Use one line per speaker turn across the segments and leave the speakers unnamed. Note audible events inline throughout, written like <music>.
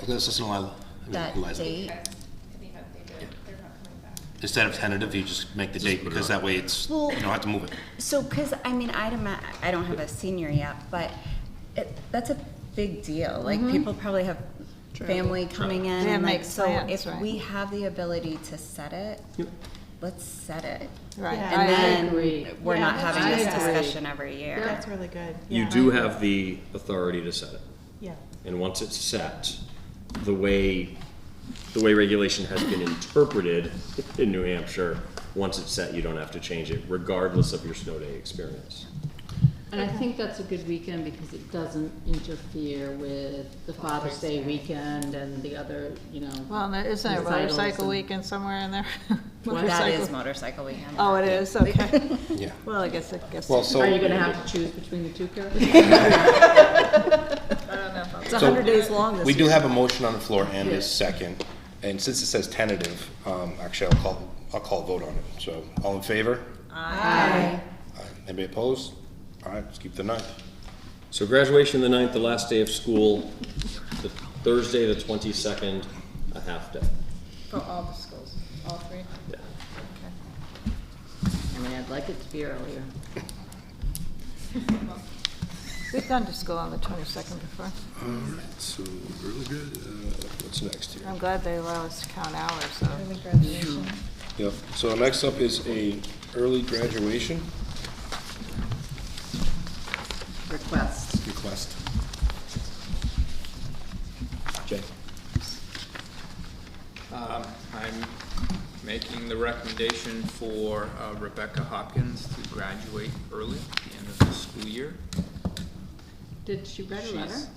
Because it's not, I
That
mean, lies.
date.
Because to be honest, they did, they're not coming back.
Instead of tentative, you just make the date, because that way it's, you
Well-
don't have to move it.
So, because, I mean, I don't, ma- I don't have a senior yet, but it, that's a big deal. Like,
Mm-hmm.
people probably have family coming in.
They
and,
make
like, So
plans,
if
right.
we have the ability to set it, let's set it.
Right.
Yeah.
And
I
agree.
then we're
Yeah,
not having
I
this
agree.
discussion every year.
That's really good.
You
Yeah.
do have the authority to set it.
Yeah.
And once it's set, the way, the way regulation has been interpreted in New Hampshire, once it's set, you don't have to change it, regardless of your snow day experience.
And I think that's a good weekend because it doesn't interfere with the Father's Day weekend and the other, you know.
Well, there- isn't there a
recitals
motorcycle
and-
weekend somewhere in there? <laughs>
That is
Motorcycle-
motorcycle weekend.
Oh, it is, okay. <laughs>
Yeah.
Well, I guess, I guess.
Well,
It's
Are you
so,
gonna have to choose between the two, <laughs> Carol?
a
so-
hundred days long this
we
year.
do have a motion on the floor and a second, and since it says tentative, um, actually, I'll call, I'll call a vote on it. So, all in favor? Aye. Anybody opposed? All right, let's keep the ninth.
So graduation the ninth, the last day of school, the Thursday, the twenty-second, a half day.
For all the schools, all three?
Yeah.
I mean, I'd like it to be earlier.
We've gone to school on the twenty-second before.
So, really good, uh, what's next here?
I'm glad they allow us to count hours, though.
Yep, so next up is a early graduation
Request.
request. Jay?
Um, I'm making the recommendation for uh, Rebecca Hopkins to graduate early at the end of the school year.
Did she write a letter?
She's-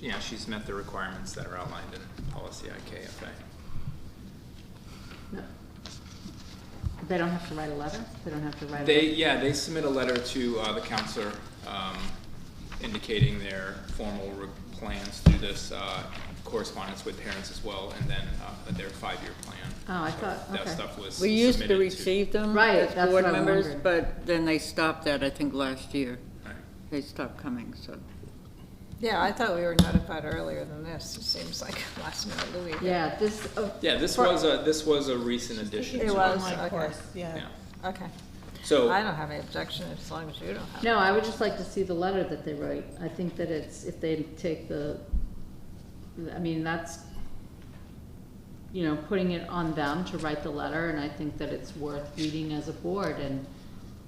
Yeah, she's met the requirements that are outlined in policy IKFA.
No. They don't have to write a letter? They don't have to write a?
They, yeah, they submit a letter to uh, the counselor um, indicating their formal re- plans through this uh, correspondence with parents as well, and then uh, their five-year plan.
Oh, I
So
thought-
That
okay.
stuff was
We used to
submitted to-
receive them
Right,
as
that's
board
what I
members,
wondered.
but then they stopped that, I think, last year.
Right.
They stopped coming, so.
Yeah, I thought we were notified earlier than this, it seems like <laughs> last minute of the week.
Yeah, this, oh,
Yeah, this was a, this was a recent addition.
It
to
was,
Online
okay,
course, yeah.
Yeah,
okay.
so.
I don't have any objection as long as you don't have.
no, I would just like to see the letter that they write. I think that it's, if they take the, I mean, that's, you know, putting it on them to write the letter, and I think that it's worth reading as a board and,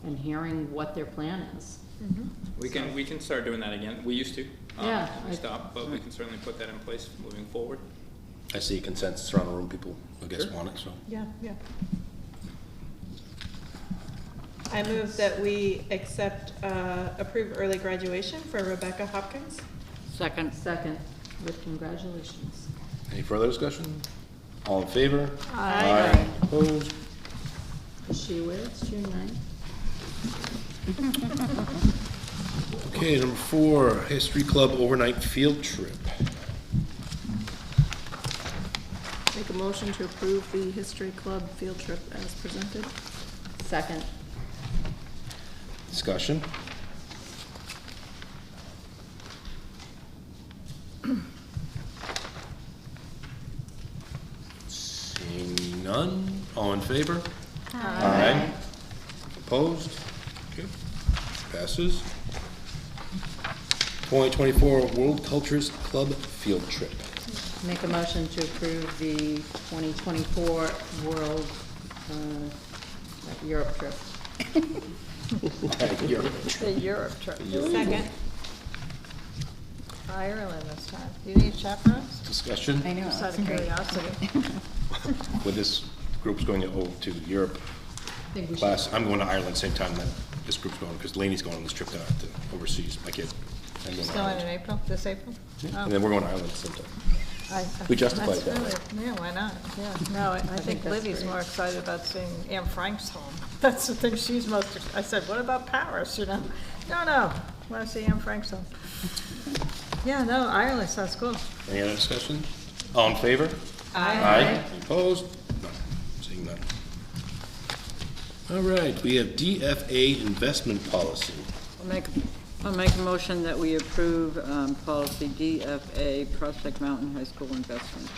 and hearing what their plan is.
We can, we can start doing that again. We used to. um,
Yeah,
We
I-
stopped, but we can certainly put that in place moving forward.
I see consensus around the room, people, I guess, want it, so.
Yeah, yeah. I move that we accept, uh, approve early graduation for Rebecca Hopkins.
Second,
Second, with congratulations.
Any further discussion? All in favor?
Aye.
Opposed?
Is she aware it's June ninth?
Okay, number four, History Club overnight field trip.
Make a motion to approve the History Club field trip as presented.
Second,
Discussion? Seeing none, all in favor? Aye. Opposed? Okay. Passes. Twenty twenty-four World Cultures Club Field Trip.
make a motion to approve the 2024 World, uh, Europe trip.
You're-
The Europe trip,
Second.
Ireland this time. Do you need chaperones?
Discussion?
know.
Just out of curiosity.
With this group's going to, oh, to Europe
think we should
last, I'm going to Ireland same time that this group's going, because Laney's going on this trip down to overseas, my kid. I'm going
It's
to
going in
Ireland.
April, this April? Oh.
And then we're going to Ireland sometime.
I-
We justified
that's
that.
really- Yeah, why not? Yeah, no, I I think
that's
Libby's
great.
more excited about seeing Anne Frank's home. <laughs> That's the thing she's most, ex- I said, what about Paris, you know? No, no, want to see Anne Frank's home. Yeah, no, Ireland sounds cool.
Any other discussion? All in favor? Aye. Any Opposed? None. Seeing none. All right, we have DFA investment policy.
I'll make, I'll make a motion that we approve um, policy DFA, Prospect Mountain High School investment.